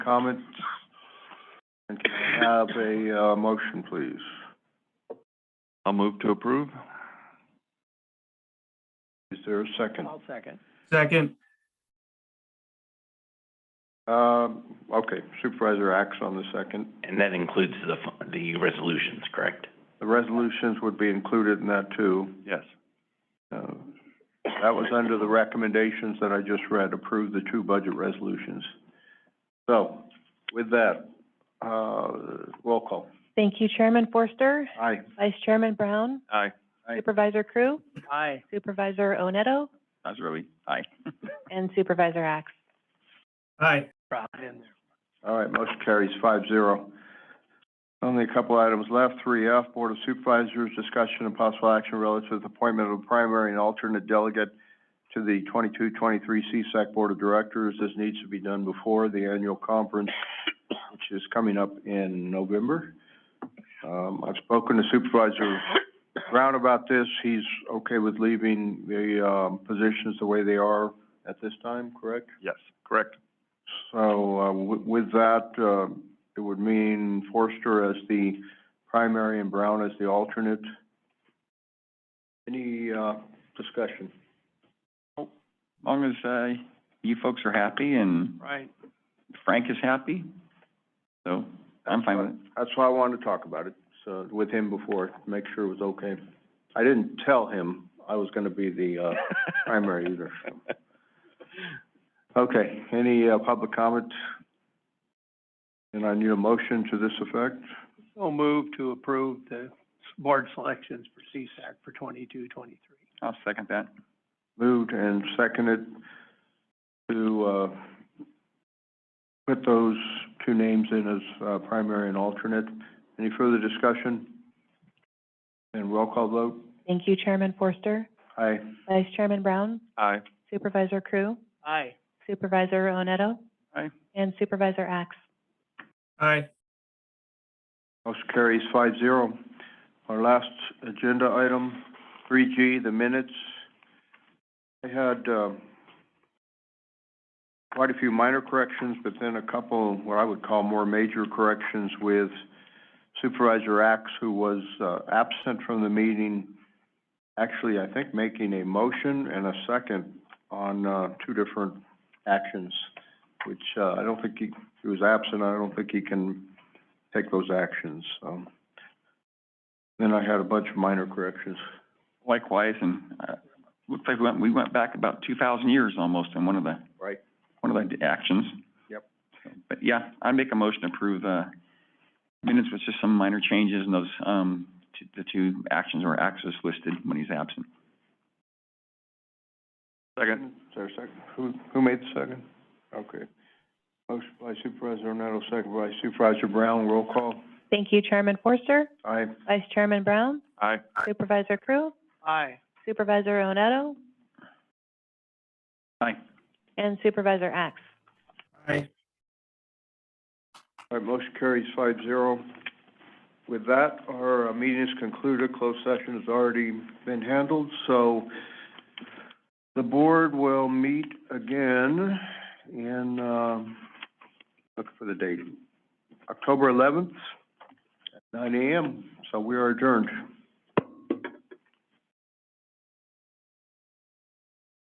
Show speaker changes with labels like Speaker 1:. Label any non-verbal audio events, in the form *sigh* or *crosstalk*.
Speaker 1: comments? And can I have a, uh, motion, please?
Speaker 2: I'll move to approve.
Speaker 1: Is there a second?
Speaker 3: I'll second.
Speaker 4: Second,
Speaker 1: Um, okay, Supervisor acts on the second.
Speaker 5: And that includes the, fu- the resolutions, correct?
Speaker 1: The resolutions would be included in that too.
Speaker 2: Yes.
Speaker 1: Uh, That was under the recommendations that I just read, approve the two budget resolutions. So, with that, uh, roll call.
Speaker 6: Thank you, Chairman Forster,
Speaker 1: Aye.
Speaker 6: Vice Chairman Brown,
Speaker 2: Aye.
Speaker 1: Aye.
Speaker 6: Supervisor Crew,
Speaker 3: Aye.
Speaker 6: Supervisor Onetto,
Speaker 2: That's really, aye.
Speaker 6: and Supervisor Axe.
Speaker 4: aye.
Speaker 3: Drop it in there.
Speaker 1: All right, motion carries five zero. Only a couple items left. Three F, Board of Supervisors, discussion and possible action relative to the appointment of a primary and alternate delegate to the 22-23 CSAC E Board of Directors. This needs to be done before the annual conference, which is coming up in November. Um, I've spoken to Supervisor Brown about this. He's okay with leaving the, um, positions the way they are at this time, correct?
Speaker 2: Yes, correct.
Speaker 1: So, uh, wi- with that, uh, it would mean Forster as the primary and Brown as the alternate. Any, uh, discussion?
Speaker 2: As long as, uh, you folks are happy and
Speaker 3: Right.
Speaker 2: Frank is happy, so I'm fine with it.
Speaker 1: That's why I wanted to talk about it, so, with him before, to make sure it was okay. I didn't tell him I was gonna be the, uh, primary
Speaker 2: *laughs*
Speaker 1: either, so. Okay, any, uh, public comment? And I need a motion to this effect?
Speaker 3: So move to approve the board selections for CSAC for twenty-two, twenty-three.
Speaker 2: I'll second that.
Speaker 1: Moved and seconded to, uh, put those two names in as, uh, primary and alternate. Any further discussion? And roll call vote?
Speaker 6: Thank you, Chairman Forster,
Speaker 1: Aye.
Speaker 6: Vice Chairman Brown,
Speaker 2: Aye.
Speaker 6: Supervisor Crew,
Speaker 3: Aye.
Speaker 6: Supervisor Onetto,
Speaker 2: Aye.
Speaker 6: and Supervisor Axe.
Speaker 4: Aye.
Speaker 1: Motion carries five zero. Our last agenda item, three G, the minutes. I had, um, quite a few minor corrections, but then a couple, what I would call more major corrections with Supervisor Axe, who was, uh, absent from the meeting, actually, I think, making a motion and a second on, uh, two different actions, which, uh, I don't think he, he was absent, I don't think he can take those actions, so. Then I had a bunch of minor corrections.
Speaker 2: Likewise, and, uh, looks like we went, we went back about two thousand years almost in one of the.
Speaker 1: Right.
Speaker 2: One of the d- actions.
Speaker 1: Yep.
Speaker 2: But yeah, I make a motion to approve, uh, minutes with just some minor changes and those, um, t- the two actions or axes listed when he's absent. Second.
Speaker 1: Is there a second? Who, who made the second? Okay. Motion by Supervisor Ornetto, second by Supervisor Brown, roll call.
Speaker 6: Thank you, Chairman Forster,
Speaker 1: Aye.
Speaker 6: Vice Chairman Brown,
Speaker 2: Aye.
Speaker 6: Supervisor Crew,
Speaker 3: Aye.
Speaker 6: Supervisor Onetto,
Speaker 2: Aye.
Speaker 6: and Supervisor Axe.
Speaker 4: Aye.
Speaker 1: All right, motion carries five zero. With that, our uh, meeting is concluded, closed session has already been handled, so the board will meet again in, um, look for the date, October eleventh, at nine AM, so we are adjourned.